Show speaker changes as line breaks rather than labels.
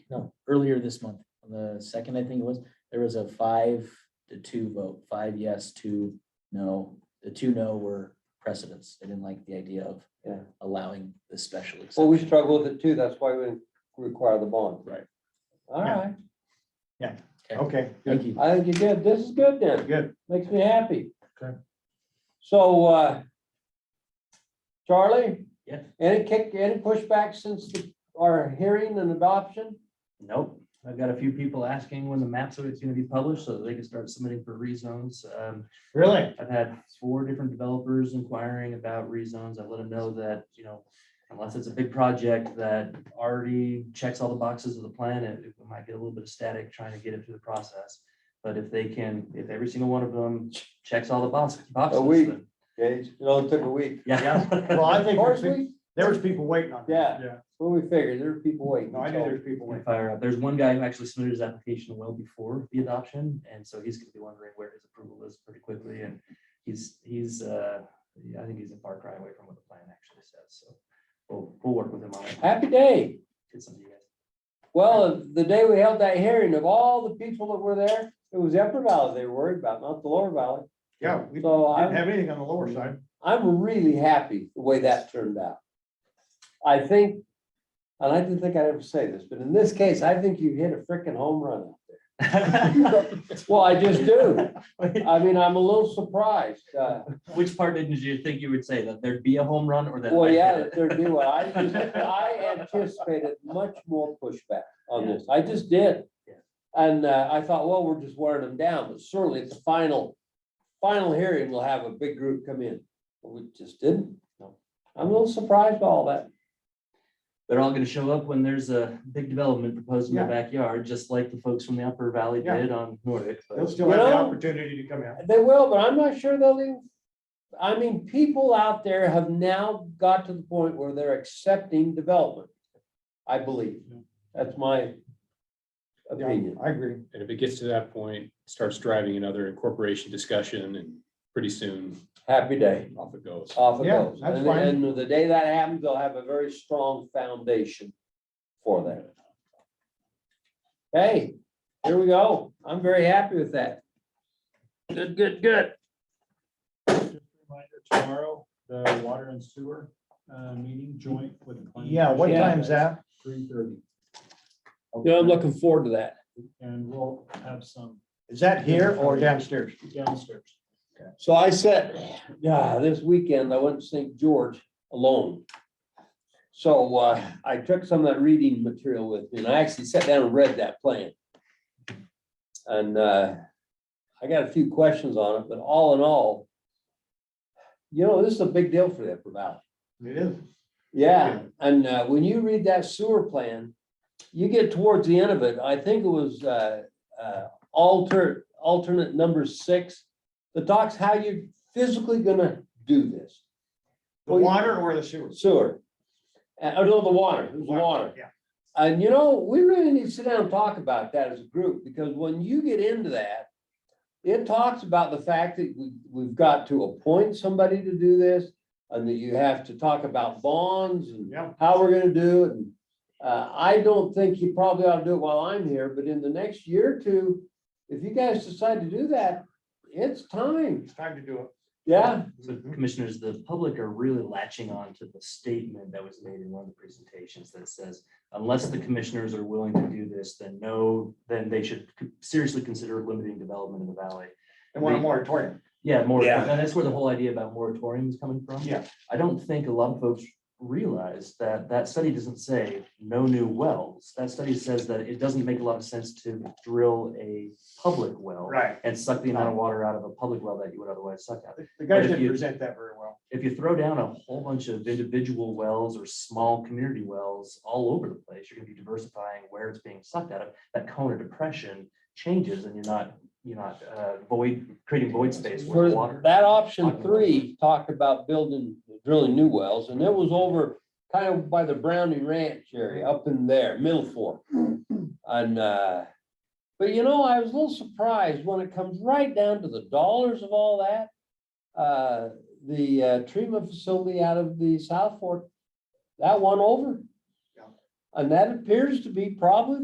no, earlier this month, on the second, I think it was, there was a five to two vote, five yes, two no. The two no were precedents. They didn't like the idea of
Yeah.
allowing this special
Well, we
exception.
struggle with it too. That's why we require the bond.
Right.
All right,
Okay,
Thank
good,
you.
I think you're good. This is good then.
good.
Makes me happy.
Okay.
So, uh, Charlie?
Yes.
Any kick, any pushback since the- our hearing and adoption?
Nope, I've got a few people asking when the map survey is gonna be published so that they can start submitting for rezones. Um,
Really?
I've had four different developers inquiring about rezones. I let them know that, you know, unless it's a big project that already checks all the boxes of the plan, it it might get a little bit of static trying to get it through the process. But if they can, if every single one of them checks all the box- boxes.
we-
then-
Gage, it only took a week.
Yeah.
Well, I
Of
think
course,
there's pe-
we,
there was people waiting on. this.
Yeah.
Yeah,
well, we figured there were people waiting.
no, I knew
so-
there's people waiting.
Point fire up. There's one guy who actually submitted his application well before the adoption, and so he's gonna be wondering where his approval is pretty quickly, and he's, he's, uh, yeah, I think he's a far cry away from what the plan actually says, so we'll, we'll work with him on it.
Happy day.
Get some of you guys.
Well, the day we held that hearing of all the people that were there, it was Upper Valley they were worried about, not the Lower Valley.
Yeah, we didn't
So I'm,
have anything on the lower side.
I'm really happy the way that turned out. I think, and I didn't think I'd ever say this, but in this case, I think you hit a freaking home run out there. Well, I just do. I mean, I'm a little surprised. uh,
Which part didn't you think you would say, that there'd be a home run or that? I
Well,
hit
yeah,
it?
that they're doing, I, just- I anticipated much more pushback on
Yeah.
this. I just did.
Yeah.
And uh, I thought, well, we're just wearing them down, but certainly at the final, final hearing, we'll have a big group come in. But We just didn't. No, I'm a little surprised by all that.
They're all gonna show up when there's a big development proposed in their backyard, just like the folks from the Upper Valley
Yeah.
did on Nordic. but-
They'll still have the
You know-
opportunity to come out.
They will, but I'm not sure they'll even, I mean, people out there have now got to the point where they're accepting development. I believe. That's my opinion.
I agree.
And if it gets to that point, starts driving another incorporation discussion and pretty soon
Happy day.
off it goes.
off it
Yeah,
goes.
that's
And-
fine.
And the day that happens, they'll have a very strong foundation for that. Hey, here we go. I'm very happy with that.
Good, good, good.
Reminder tomorrow, the water and sewer uh, meeting joint with. the planning
Yeah, what
commission.
time's that?
Three thirty.
Yeah, I'm looking forward to that.
And we'll have some
Is that here or downstairs?
downstairs.
So I said, yeah, this weekend I went to St. George alone. So uh, I took some of that reading material with me and I actually sat down and read that plan. And uh, I got a few questions on it, but all in all, you know, this is a big deal for the Upper Valley.
It is.
Yeah, and uh, when you read that sewer plan, you get towards the end of it, I think it was uh, uh, alter, alternate number six. The talks how you're physically gonna do this
The water or the sewer?
sewer. Uh, oh, no, the water, it was water.
Yeah.
And you know, we really need to sit down and talk about that as a group, because when you get into that, it talks about the fact that we, we've got to appoint somebody to do this, and that you have to talk about bonds and
Yeah.
how we're gonna do it. And, Uh, I don't think you probably ought to do it while I'm here, but in the next year or two, if you guys decide to do that, it's time,
It's time to do
yeah.
So
Mhm.
commissioners, the public are really latching on to the statement that was made in one of the presentations that says, unless the commissioners are willing to do this, then no, then they should seriously consider limiting development in the valley.
it. I want a moratorium.
Yeah, more,
Yeah.
and that's where the whole idea about moratorium is coming from.
Yeah.
I don't think a lot of folks realize that that study doesn't say no new wells. That study says that it doesn't make a lot of sense to drill a public well.
Right.
And suck the amount of water out of a public well that you would otherwise suck out.
The- The guys
if
didn't
you-
present that very well.
if you throw down a whole bunch of individual wells or small community wells all over the place, you're gonna be diversifying where it's being sucked out of. That cone of depression changes and you're not, you're not uh, void, creating void space
For
where water.
That option three talked about building, drilling new wells, and it was over kind of by the Browning Ranch area, up in there, Middle Fork. And, uh, but you know, I was a little surprised when it comes right down to the dollars of all that. Uh, the uh, treatment facility out of the South Fork, that one over.
Yeah.
And that appears to be probably